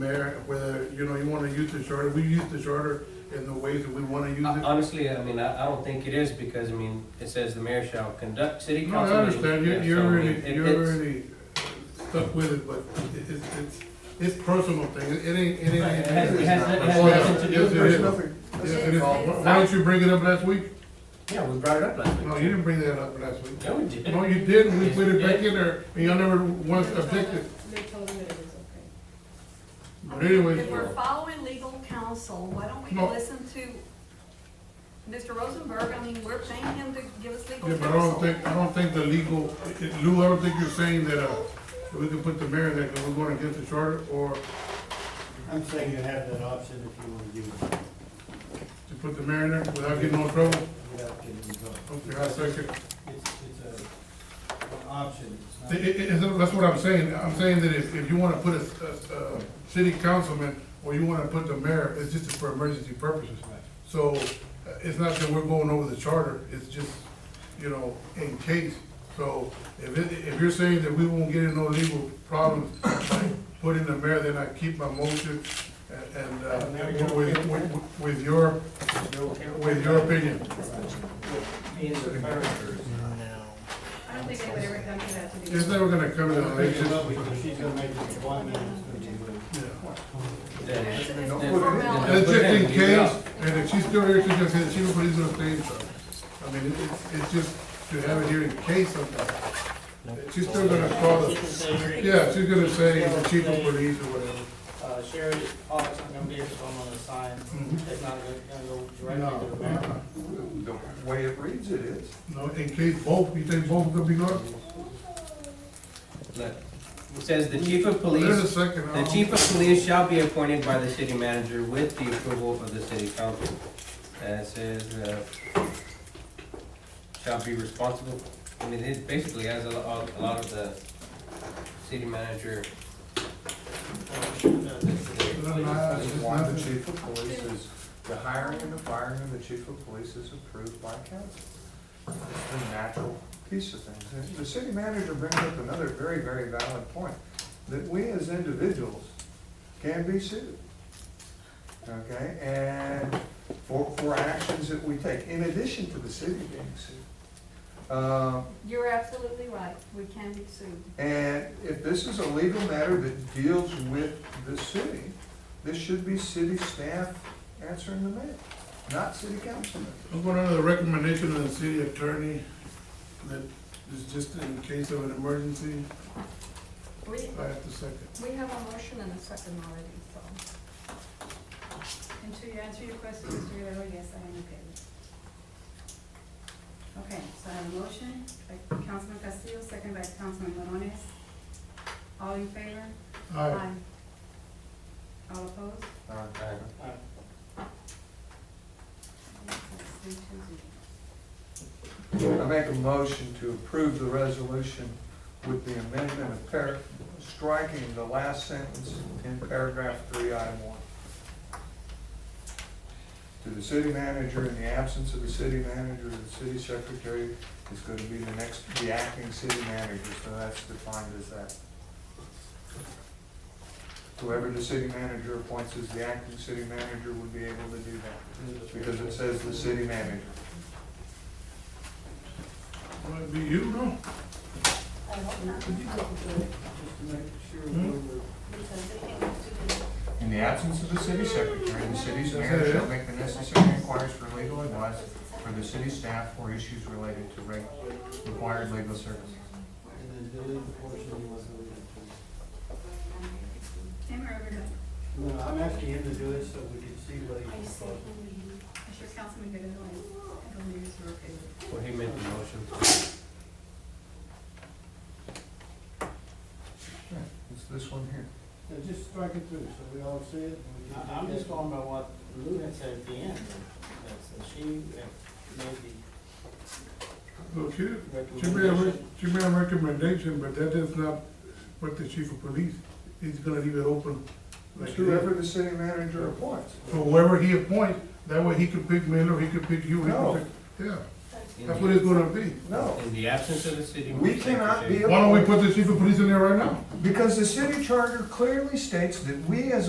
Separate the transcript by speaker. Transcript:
Speaker 1: Mayor, whether, you know, you wanna use the charter, we use the charter in the ways that we wanna
Speaker 2: Uh,
Speaker 1: use it.
Speaker 2: Honestly, I mean, I, I don't think it is, because, I mean, it says the mayor shall conduct city
Speaker 1: No, I
Speaker 2: council. meetings.
Speaker 1: understand, you're,
Speaker 2: Yeah,
Speaker 1: you're
Speaker 2: so, I mean,
Speaker 1: already,
Speaker 2: it-
Speaker 1: you're
Speaker 2: it's-
Speaker 1: already stuck with it, but it- it's, it's, it's personal thing, it it ain't, it ain't.
Speaker 2: Right, it has- it has- it has
Speaker 1: Oh, yeah.
Speaker 2: nothing to do
Speaker 1: Yes, it
Speaker 2: with
Speaker 1: is.
Speaker 2: personal.
Speaker 1: Yes, it is. Why why don't you bring it up last week?
Speaker 2: Yeah, we brought it up last week.
Speaker 1: No, you didn't bring that up last week.
Speaker 2: Yeah, we did.
Speaker 1: No, you didn't, we
Speaker 2: Yes,
Speaker 1: put
Speaker 2: you
Speaker 1: it back
Speaker 2: did.
Speaker 1: in there, and y'all never once
Speaker 3: They're telling-
Speaker 1: objected.
Speaker 3: They're telling me it is okay.
Speaker 1: But anyways,
Speaker 4: If we're following legal counsel, why don't we
Speaker 1: No.
Speaker 4: listen to Mr. Rosenberg? I mean, we're paying him to give us legal
Speaker 1: yeah,
Speaker 4: counsel.
Speaker 1: but I don't think, I don't think the legal, Lou, I don't think you're saying that, uh, that we can put the mayor in there, cause we're going against the charter, or
Speaker 5: I'm saying you have that option if you want to do it
Speaker 1: to put the mayor in there without getting no trouble.
Speaker 5: without getting involved.
Speaker 1: Okay, I second.
Speaker 5: It's, it's a, an option. It's not-
Speaker 1: It- it- it- that's what I'm saying, I'm saying that if, if you wanna put a, a, a city councilman, or you wanna put the mayor, it's just for emergency purposes. So, uh, it's not that we're going over the charter, it's just, you know, in case. So, if it, if you're saying that we won't get in no legal problems by putting the mayor, then I keep my motion and, and, uh, with, with, with your, with your opinion.
Speaker 5: Being the first.
Speaker 3: I don't think anybody ever come to that to be.
Speaker 1: It's never gonna come to that, it's
Speaker 5: Pick it up
Speaker 1: just,
Speaker 5: because she's gonna make an appointment. it's gonna be late.
Speaker 1: yeah.
Speaker 2: Then-
Speaker 4: It's- it's
Speaker 2: then-
Speaker 4: formality.
Speaker 2: then-
Speaker 1: That's just in
Speaker 2: then leave it
Speaker 1: case,
Speaker 2: out.
Speaker 1: and if she's still here, she can say she will put it in the thing, so. I mean, it- it's, it's just to have it here in case something. She's still gonna call
Speaker 6: She
Speaker 1: us,
Speaker 6: considered,
Speaker 1: yeah, she's gonna say the chief of police or whatever.
Speaker 6: uh, Sherry's office, I'm gonna be here, so I'm gonna sign,
Speaker 1: Mhm.
Speaker 6: it's not gonna go directly to the mayor.
Speaker 1: No,
Speaker 7: The way it reads it is.
Speaker 1: no, in case both, you think both could be gone?
Speaker 2: Look, It says the chief of
Speaker 1: There's a
Speaker 2: police,
Speaker 1: second.
Speaker 2: the chief of police shall be appointed by the city manager with the approval of the city council. And it says, uh, shall be responsible, I mean, it basically has a lot, a lot of the city manager.
Speaker 1: No, no, it's just
Speaker 7: Why
Speaker 1: not
Speaker 7: the
Speaker 1: the chief.
Speaker 7: chief of police is, the hiring and the firing of the chief of police is approved by council. It's the natural piece of things. And The city manager brings up another very, very valid point, that we as individuals can be sued. Okay, and for, for actions that we take, in addition to the city being sued. Uh,
Speaker 4: You're absolutely right, we can be sued.
Speaker 7: and if this is a legal matter that deals with the city, this should be city staff answering the mayor, not city councilman.
Speaker 1: I'm going under the recommendation of the city attorney that is just in case of an emergency,
Speaker 4: We,
Speaker 1: I have to second.
Speaker 4: we have a motion and a second already, so.
Speaker 3: And to answer your question, Mr. Guerrero, yes, I am okay with it. Okay, so I have a motion by Councilman Castillo, second by Councilman Morones. All in favor?
Speaker 1: All right,
Speaker 3: Aye. All opposed?
Speaker 7: Uh,
Speaker 3: Three, two, zero.
Speaker 7: I make a motion to approve the resolution with the amendment of par, striking the last sentence in paragraph three, I one. To the city manager, in the absence of the city manager, the city secretary is going to be the next, the acting city manager, so that's defined as that. Whoever the city manager appoints as the acting city manager would be able to do that, because it says the city manager.
Speaker 1: might be you, no?
Speaker 3: I hope not.
Speaker 5: Just to make sure
Speaker 1: Hmm?
Speaker 5: we're-
Speaker 3: Because they can't do it.
Speaker 7: In the absence of the city secretary, the city's mayor shall make the necessary inquiries for legal advice for the city staff or issues related to reg- required legal services.
Speaker 5: and then delete the portion you want to delete.
Speaker 3: Tim, or everybody?
Speaker 5: No, I'm asking him to do it so we can see what
Speaker 3: I
Speaker 5: he's.
Speaker 3: see. I'm sure Councilman Guerrero and the leaders are okay with it.
Speaker 2: Well, he made the motion.
Speaker 7: It's this one here.
Speaker 5: So just strike it through so we all see it. I- I'm just going by what Lou had said at the end, that that she had made the
Speaker 1: Okay. She made, a re-
Speaker 5: recommendation.
Speaker 1: she made a recommendation, but that does not put the chief of police, he's gonna leave it open. like
Speaker 7: Whoever the city manager appoints.
Speaker 1: that. So whoever he appoints, that way he could pick Miller, he could pick you, he
Speaker 7: No.
Speaker 1: could pick, yeah,
Speaker 2: In
Speaker 1: that's
Speaker 2: the-
Speaker 1: what it's gonna be.
Speaker 7: No,
Speaker 2: In the absence of the city.
Speaker 7: We cannot be-
Speaker 1: Why don't we put the chief of police in there right now?
Speaker 7: because the city charter clearly states that we as